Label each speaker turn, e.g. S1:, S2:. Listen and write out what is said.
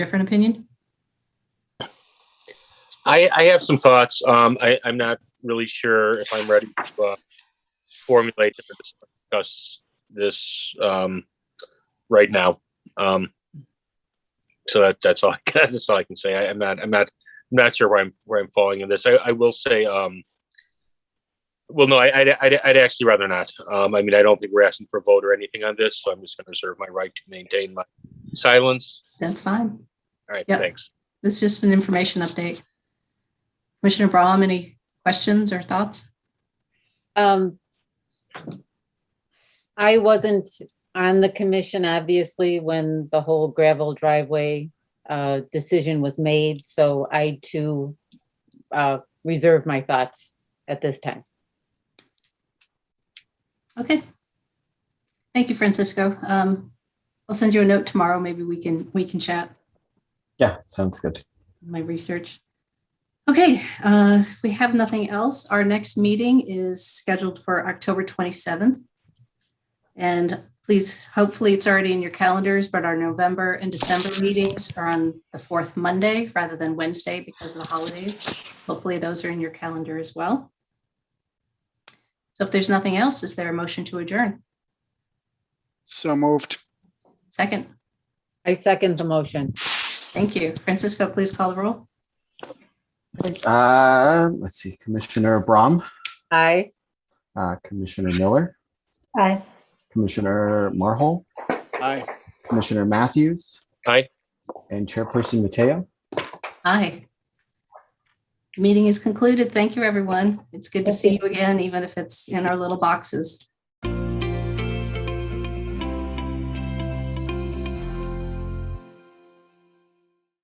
S1: different opinion?
S2: I, I have some thoughts. Um, I, I'm not really sure if I'm ready to uh, formulate or discuss this um, right now. Um, so that, that's all. I can, that's all I can say. I, I'm not. I'm not. I'm not sure where I'm where I'm falling in this. I, I will say. Um, well, no, I, I'd, I'd, I'd actually rather not. Um, I mean, I don't think we're asking for a vote or anything on this, so I'm just going to reserve my right to maintain my silence.
S1: That's fine.
S2: All right,
S1: Yep.
S2: thanks.
S1: This is just an information update. Commissioner Brahm, any questions or thoughts?
S3: Um, I wasn't on the commission, obviously, when the whole gravel driveway uh, decision was made, so I too uh, reserve my thoughts at this time.
S1: Okay. Thank you, Francisco. Um, I'll send you a note tomorrow. Maybe we can, we can chat
S4: Yeah, sounds good.
S1: my research. Okay, uh, if we have nothing else, our next meeting is scheduled for October 27th. And please, hopefully it's already in your calendars, but our November and December meetings are on the fourth Monday rather than Wednesday because of the holidays. Hopefully those are in your calendar as well. So if there's nothing else, is there a motion to adjourn?
S5: So moved.
S1: Second,
S3: I second the motion.
S1: thank you. Francisco, please call the roll.
S4: Uh, let's see, Commissioner Brahm,
S3: Aye.
S4: uh, Commissioner Miller,
S1: Aye.
S4: Commissioner Marhol,
S5: Aye.
S4: Commissioner Matthews.
S2: Aye.
S4: And Chairperson Mateo.
S1: Aye. Meeting is concluded. Thank you, everyone. It's good to see you again, even if it's in our little boxes.